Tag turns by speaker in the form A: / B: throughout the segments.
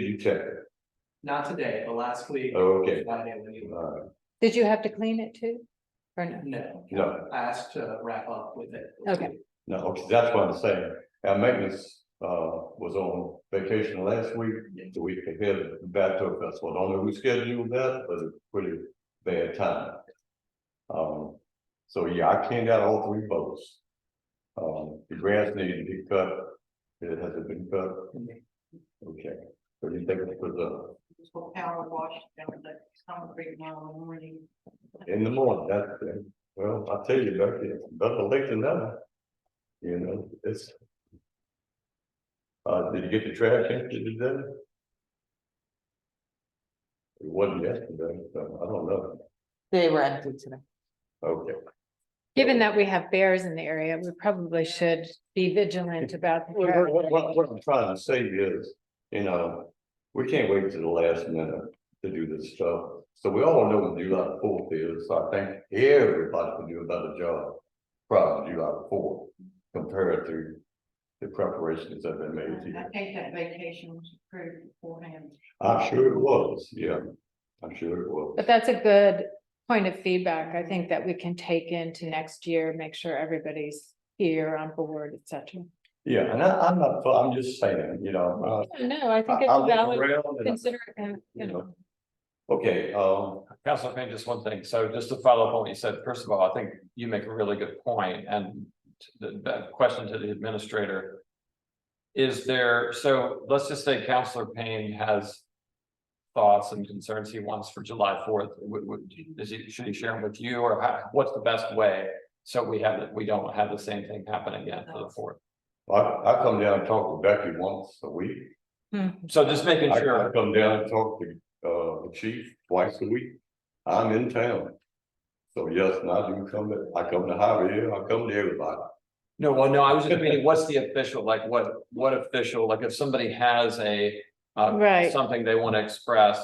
A: You checked it,
B: Not today, but last week.
A: Oh, okay.
B: Friday when you-
A: uh,
C: Did you have to clean it too? Or no?
B: No,
A: no,
B: I asked to wrap up with it.
C: Okay.
A: no, okay, that's what I'm saying, our maintenance, uh, was on vacation last week, the week ahead of the Battle Festival, I don't know who scheduled that, but it's pretty bad time. Um, so yeah, I cleaned out all three boats. Um, the grass needed to be cut, it hasn't been cut, okay, so you think it was, uh,
D: for power wash, down at the concrete now in the morning.
A: In the morning, that's, the- well, I tell you, Becky, it's better late than never. You know, it's. Uh, did you get the trash empty today? It wasn't yesterday, so I don't know.
E: They were empty today.
A: Okay,
C: Given that we have bears in the area, we probably should be vigilant about. the
A: what, what-
C: traffic.
A: what- what I'm trying to say is, you know, we can't wait to the last minute to do this stuff. So we all know when July fourth is, so I think everybody can do a better job prior to July fourth compared to the preparations that have been made
D: And I
A: here.
D: think that vacation was approved beforehand.
A: I'm sure it was, yeah, I'm sure it was.
C: But that's a good point of feedback, I think that we can take into next year, make sure everybody's here on board, et cetera.
A: Yeah, and I, I'm not, I'm just saying, you know,
C: No, I
A: I,
C: think it's
A: I
C: a
A: look
C: valid,
A: around and,
C: consider, it, you know.
A: okay, um,
F: Councilman, just one thing. So just to follow up on what you said, first of all, I think you make a really good point and the, the question to the administrator. Is there, so let's just say Counselor Payne has thoughts and concerns he wants for July fourth. Would, would, is he, should he share them with you or how- what's the best way? So we have, we don't have the same thing happen again for the fourth.
A: I, I come down and talk to Becky once a week.
F: So just making
A: I
F: sure.
A: I come down and talk to, uh, the chief twice a week. I'm in town. So yes, and I do come, to- I come to Javier, I come to everybody.
F: No, well, no, I was just meaning, what's the official, like, what, what official, like, if somebody has a, uh,
C: Right.
F: something they want to express.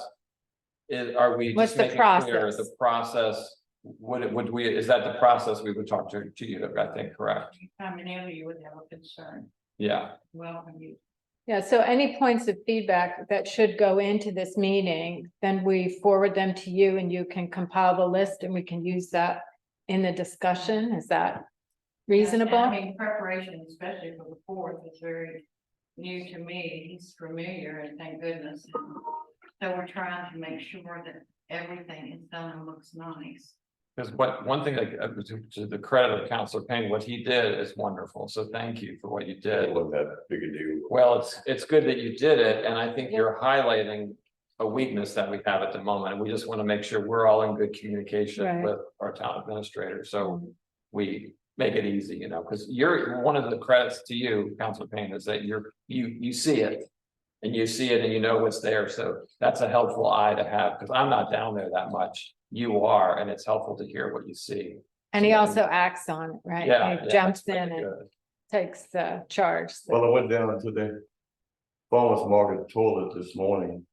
F: Is, are we
C: What's
F: just
C: the
F: making clear
C: process?
F: the process, would it, would we, is that the process we would talk to, to you, I think, correct?
D: Coming in, you would have a concern.
F: Yeah,
D: Well, and you,
C: Yeah, so any points of feedback that should go into this meeting, then we forward them to you and you can compile the list and we can use that in the discussion. Is that
D: I
C: reasonable?
D: mean, preparation, especially for the fourth, is very new to me. He's familiar and thank goodness. So we're trying to make sure that everything is done and looks nice.
F: because what, one thing, like, uh, to, to the credit of Counselor Payne, what he did is wonderful, so thank you for what you did.
A: It wasn't that big a deal.
F: Well, it's, it's good that you did it, and I think you're highlighting a weakness that we have at the moment, and we just want to make sure we're all in good communication
C: Right. Mm-hmm.
F: with our town administrator, so we make it easy, you know, because you're, one of the credits to you, Council Payne, is that you're, you, you see it. And you see it and you know what's there, so that's a helpful eye to have, because I'm not down there that much, you are, and it's helpful to hear what you see.
C: And he also acts on it, right?
F: Yeah.
C: He
F: yeah,
C: Jumps
F: that's really
C: in and
F: good.
C: takes the charge. so-
A: Well, I went down to the farmer's market toilet this morning.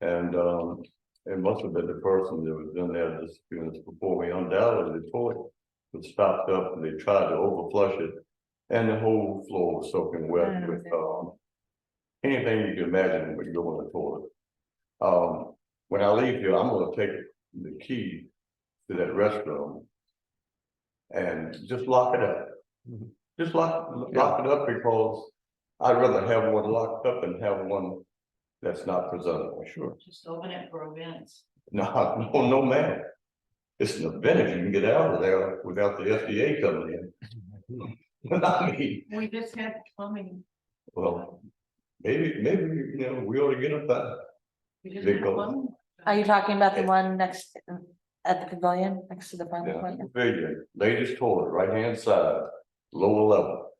A: And, um, it must have been the person that was in there just a few minutes before me undoubtedly the toilet was stopped up and they tried to overflush it. And the whole floor was soaking wet with, um, anything you can imagine when you go in the toilet. Um, when I leave here, I'm gonna take the key to that restroom. And just lock it up. Just lock, lock it up because I'd rather have one locked up than have one that's not presentable. Sure.
D: Just open it for events.
A: No, no, no, ma'am. It's an event if you can get out of there without the FDA coming in. I mean,
D: We just had plumbing.
A: well, maybe, maybe, you know, we ought to get up that.
D: We just
A: They
D: had
A: go-
D: plumbing.
E: Are you talking about the
A: Yeah.
E: one next, um, at the pavilion, next to the farm
A: Yeah,
E: pavilion?
A: pavilion, ladies toilet, right hand side, lower level.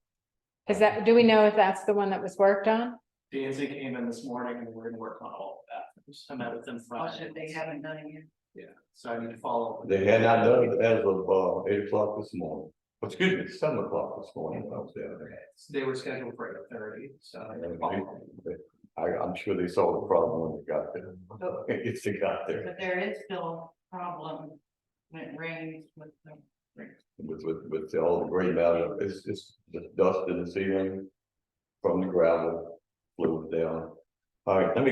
C: Is that, do we know if that's the one that was worked on?
B: D and Z came in this morning and we're gonna work on all of that. I met with them Friday.
D: Also, they haven't done it yet.
B: Yeah, so I need to follow. up.
A: They had not done it as of uh eight o'clock this morning, excuse me, seven o'clock this morning, I was down there.
B: They were scheduled for eight thirty, so. I need to follow up.
A: I, I'm sure they saw the problem when they got there. It's they got there
D: But there is still a problem when it rains with the.
A: with, with, with all the gray matter. It's just the dust in the ceiling from the gravel, flew down. All right, let me